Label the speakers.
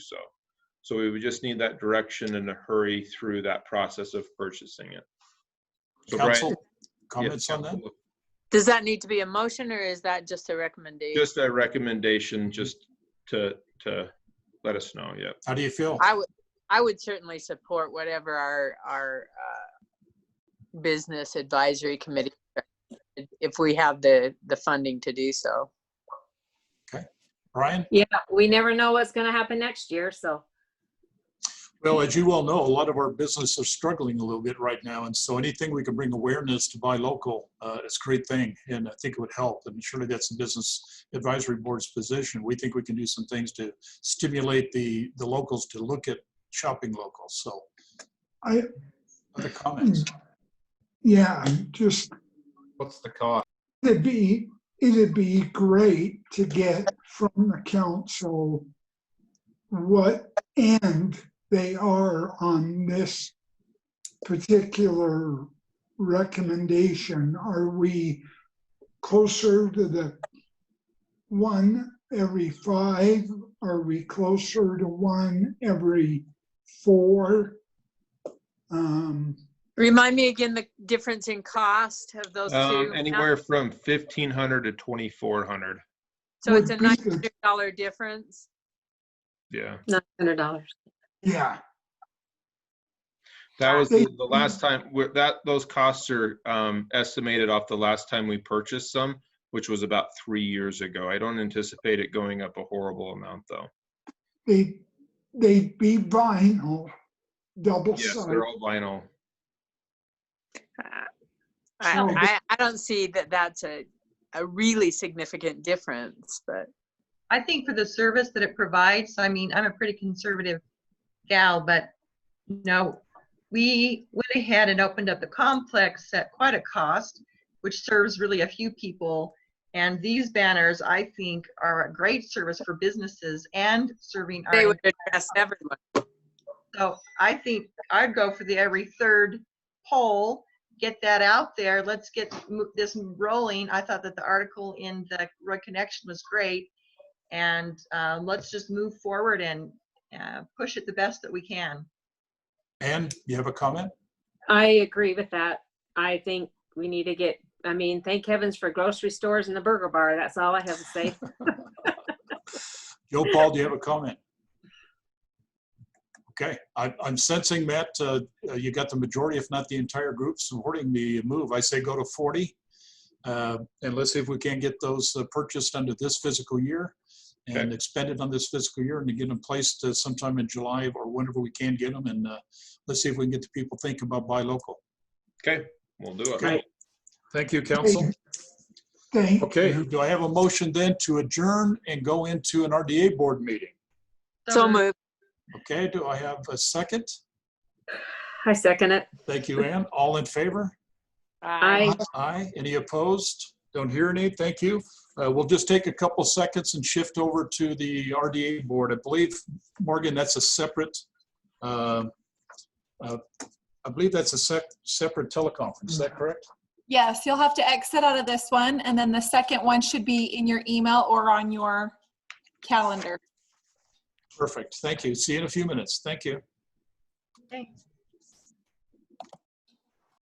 Speaker 1: so. So we would just need that direction and a hurry through that process of purchasing it. So Brian-
Speaker 2: Council,
Speaker 1: Yeah,
Speaker 2: comments on that?
Speaker 1: Council,
Speaker 3: Does that need to be a motion or is that just a recommendation?
Speaker 1: Just a recommendation, just to, to let us know, yeah.
Speaker 2: How do you feel?
Speaker 3: I would, I would certainly support whatever our, our, uh, business advisory committee, if we have the, the funding to do so.
Speaker 2: Brian?
Speaker 4: Yeah, we never know what's gonna happen next year, so.
Speaker 2: Well, as you well know, a lot of our businesses are struggling a little bit right now. And so anything we can bring awareness to buy local uh, is a great thing. And I think it would help. And surely that's the business advisory board's position. We think we can do some things to stimulate the, the locals to look at shopping local. So
Speaker 5: I,
Speaker 2: other comments?
Speaker 5: yeah, just,
Speaker 6: What's the cost?
Speaker 5: it'd be, it'd be great to get from the council what end they are on this particular recommendation. Are we closer to the one every five? Are we closer to one every four? Um,
Speaker 3: Remind me again the difference in cost of those two.
Speaker 1: Um, anywhere from fifteen hundred to twenty-four hundred,
Speaker 3: So it's a
Speaker 5: would be
Speaker 3: nine
Speaker 5: the-
Speaker 3: hundred dollar difference.
Speaker 1: yeah.
Speaker 4: Nine hundred dollars.
Speaker 5: Yeah,
Speaker 1: That was
Speaker 5: They-
Speaker 1: the the last time, we're- that, those costs are um, estimated off the last time we purchased some, which was about three years ago. I don't anticipate it going up a horrible amount, though.
Speaker 5: they, they'd be vinyl, double
Speaker 1: Yes,
Speaker 5: sided.
Speaker 1: they're all vinyl.
Speaker 3: I,
Speaker 5: So the-
Speaker 3: I, I don't see that that's a, a really significant difference, but
Speaker 7: I think for the service that it provides, I mean, I'm a pretty conservative gal, but no, we went ahead and opened up the complex at quite a cost, which serves really a few people. And these banners, I think, are a great service for businesses and serving
Speaker 3: they
Speaker 7: our,
Speaker 3: would address everyone.
Speaker 7: so I think I'd go for the every third poll, get that out there, let's get mo- this rolling. I thought that the article in the Roy Connection was great. And uh, let's just move forward and uh, push it the best that we can.
Speaker 2: And you have a comment?
Speaker 4: I agree with that. I think we need to get, I mean, thank heavens for grocery stores and the burger bar. That's all I have to say.
Speaker 2: Joe Paul, do you have a comment? Okay, I, I'm sensing, Matt, uh, you got the majority, if not the entire group supporting the move. I say go to 40. uh, And let's see if we can get those uh, purchased under this fiscal year and
Speaker 1: Okay.
Speaker 2: expended on this fiscal year and to get them placed uh, sometime in July or whenever we can get them. And uh, let's see if we can get the people thinking about buy local.
Speaker 1: Okay, we'll do it.
Speaker 2: Okay. Thank you, council.
Speaker 5: Thank
Speaker 2: Okay, do I have a motion then to adjourn and go into an RDA board meeting?
Speaker 3: So
Speaker 7: moved.
Speaker 3: moved.
Speaker 2: Okay, do I have a second?
Speaker 4: I second it.
Speaker 2: Thank you, Ann. All in favor?
Speaker 4: I.
Speaker 2: Aye. Any opposed? Don't hear any. Thank you. Uh, We'll just take a couple seconds and shift over to the RDA board. I believe, Morgan, that's a separate, uh, uh, I believe that's a sec, separate teleconference. Is that correct?
Speaker 8: Yes, you'll have to exit out of this one, and then the second one should be in your email or on your calendar.
Speaker 2: Perfect. Thank you. See you in a few minutes. Thank you.
Speaker 7: Thanks.